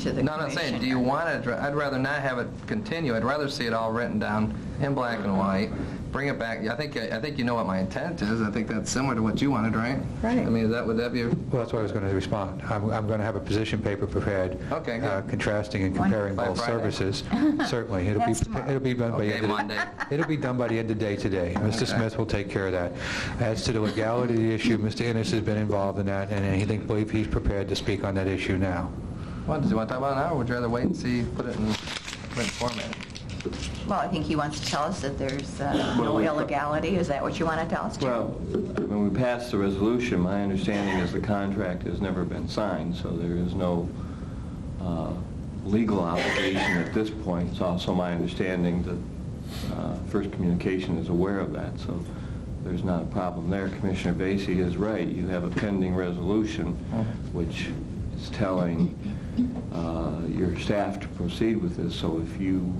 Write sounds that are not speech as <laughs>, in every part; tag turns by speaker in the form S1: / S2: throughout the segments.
S1: to the commission.
S2: No, I'm not saying, do you want it, I'd rather not have it continue, I'd rather see it all written down in black and white, bring it back, I think, I think you know what my intent is, I think that's similar to what you wanted, right?
S1: Right.
S2: I mean, is that, would that be, a-
S3: Well, that's why I was going to respond. I'm, I'm going to have a position paper prepared.
S2: Okay, good.
S3: uh, Contrasting and comparing
S2: By
S3: both
S2: Friday. <laughs>
S3: services. Certainly. It'll be,
S4: That's tomorrow.
S3: it'll be done by...
S2: okay,
S3: end of-
S2: Monday?
S3: It'll be done by the end of
S2: <laughs>
S3: day today. Mr. Smith will take care of that. As to the legality of the issue, Mr. Innes has been involved in that, and I think, believe he's prepared to speak on that issue now.
S2: Well, does you want to talk about it now, or would you rather wait and see, put it in print format?
S4: Well, I think he wants to tell us that there's uh, no
S5: Well, we-
S4: illegality. Is that what you want to tell us, Jim?
S5: Well, when we passed the resolution, my understanding is the contract has never been signed, so there is no uh, legal obligation at this point. It's also my understanding that uh, First Communication is aware of that, so there's not a problem there. Commissioner Vacy is right. You have a pending resolution, which is telling uh, your staff to proceed with this, so if you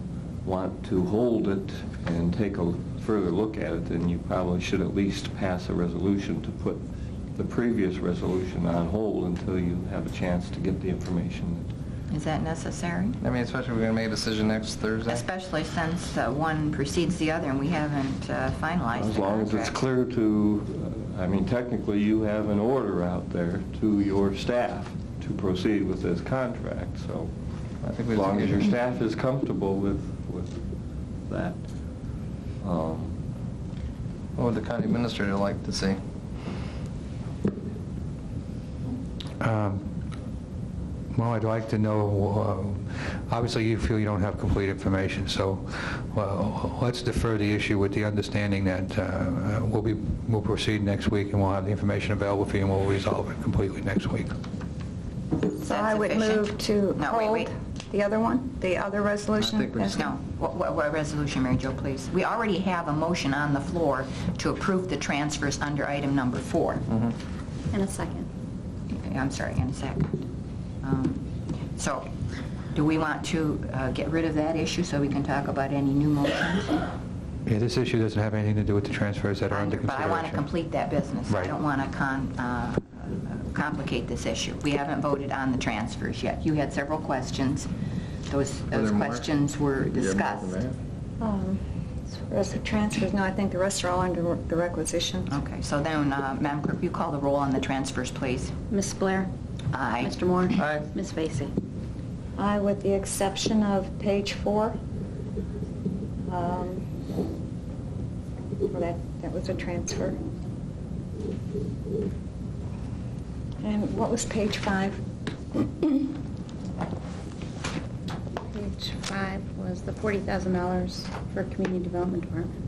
S5: want to hold it and take a further look at it, then you probably should at least pass a resolution to put the previous resolution on hold until you have a chance to get the information.
S4: Is that necessary?
S2: I mean, especially if we're going to make a decision next Thursday.
S4: Especially since uh, one precedes the other and we haven't uh, finalized
S5: As
S4: the
S5: long as it's
S4: contract.
S5: clear to, uh, I mean, technically, you have an order out there to your staff to proceed with this contract, so
S2: I think we
S5: as
S2: just
S5: long as
S2: get- <clears throat>
S5: your staff is comfortable with, with that. Um,
S2: What would the county administrator like to see?
S3: Um, Well, I'd like to know, uh, obviously you feel you don't have complete information, so well, let's defer the issue with the understanding that uh, we'll be, we'll proceed next week and we'll have the information available for you and we'll resolve it completely next week.
S4: Is
S6: So
S4: that
S6: I would
S4: sufficient?
S6: move to
S4: No, wait,
S6: hold
S4: wait.
S6: the other one, the other resolution.
S2: think we
S6: as-
S4: No. What- What what resolution, Mary Jo, please? We already have a motion on the floor to approve the transfers under item number four.
S7: In a second.
S5: Mm-hmm.
S4: I'm sorry, in a second. Um, So, do we want to uh, get rid of that issue so we can talk about any new motions?
S3: Yeah, this issue doesn't have anything to do with the transfers that are under
S4: But I
S3: consideration.
S4: want to complete that business. I
S3: Right.
S4: don't want to complicate this issue. We haven't voted on the transfers yet. You had several questions. Those
S2: there
S4: those
S2: more?
S4: questions were discussed.
S6: Um, As far as the transfers, no, I think the rest are all under the requisition.
S4: Okay, so then, uh, Madam Clerk, you call the roll on the transfers, please.
S7: Ms. Blair?
S4: Aye.
S7: Mr. Moore?
S2: Aye.
S7: Ms. Vacy?
S6: I, with the exception of page four, um, well, that, that was a transfer. And what was page five? <coughs>
S7: Page five was the $40,000 for Community Development Department.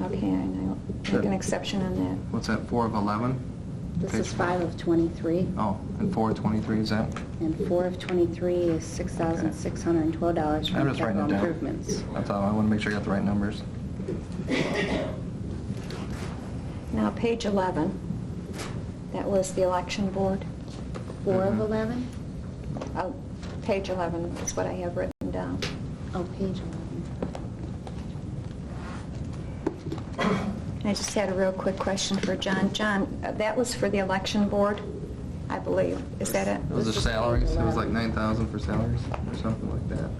S6: Okay, I know, make an exception on that.
S2: What's that, 4 of 11?
S7: This
S2: Page
S7: is five of 23,
S2: Oh, and 4 of 23, is that?
S7: and four of 23 is $6,612
S2: I'm
S7: for
S2: just writing it
S7: capital
S2: down.
S7: improvements.
S2: I thought, I want to make sure I got the right numbers.
S6: Now, page 11, that was the election board.
S7: Four of
S2: Mhm.
S7: 11?
S6: Oh, Page 11 is what I have written down.
S7: Oh, page 11.
S6: I just had a real quick question for John. John, uh, that was for the election board, I believe. Is that it?
S2: It was their salaries, it was like 9,000 for salaries, or something like that.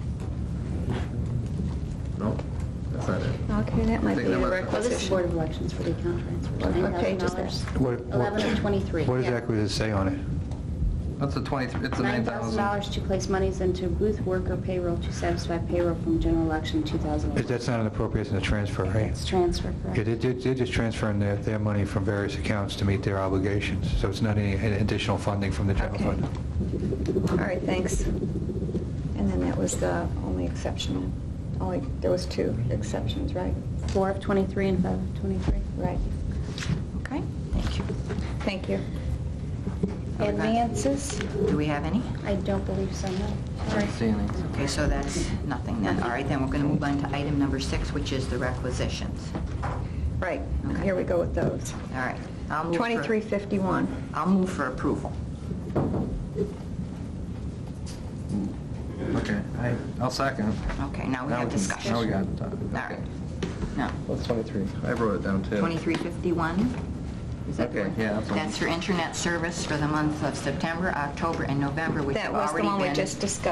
S2: No, that's not it.
S6: Okay, that
S2: I
S6: might be
S2: think that
S6: the
S2: was-
S7: Well, this is
S6: requisition.
S7: Board of Elections for the account transfers.
S6: What- what page is that?
S7: $9,000.
S3: What- what-
S7: 11 of 23.
S3: What
S7: Yeah.
S3: exactly does it say on it?
S2: That's the 23, it's the 9,000.
S7: $9,000 to place monies into booth worker payroll to satisfy payroll from general election 2011.
S3: Is- That's not an appropriation, it's a transfer, right?
S7: It's transfer, correct?
S3: Yeah, they- they- They're just transferring their, their money from various accounts to meet their obligations, so it's not any additional funding from the general
S6: Okay.
S3: fund.
S6: All right, thanks. And then that was the only exception, only, there was two exceptions, right?
S7: Four of 23 and five of 23.
S6: Right.
S4: Okay, thank you.
S6: Thank you.
S7: Advances?
S4: Do we have any?
S7: I don't believe so, no.
S2: I don't see any.
S4: Okay, so that's nothing then. All right, then we're going to move on to item number six, which is the requisitions.
S6: Right,
S4: Okay.
S6: here we go with those.
S4: All right. I'll move for-
S6: 2351.
S4: I'll move for approval.
S2: Okay, I- I'll second.
S4: Okay, now we
S2: Now
S4: have
S2: can-
S4: discussion.
S2: Now we got
S4: All
S2: it.
S4: right. No,
S2: What's 23? I wrote it down too.
S4: 2351, Is that the
S2: Okay,
S4: one?
S2: yeah, that's one.
S4: That's for internet service for the month of September, October, and November, which
S6: That
S4: have
S6: was the
S4: already
S6: one we
S4: been-
S6: just discussed.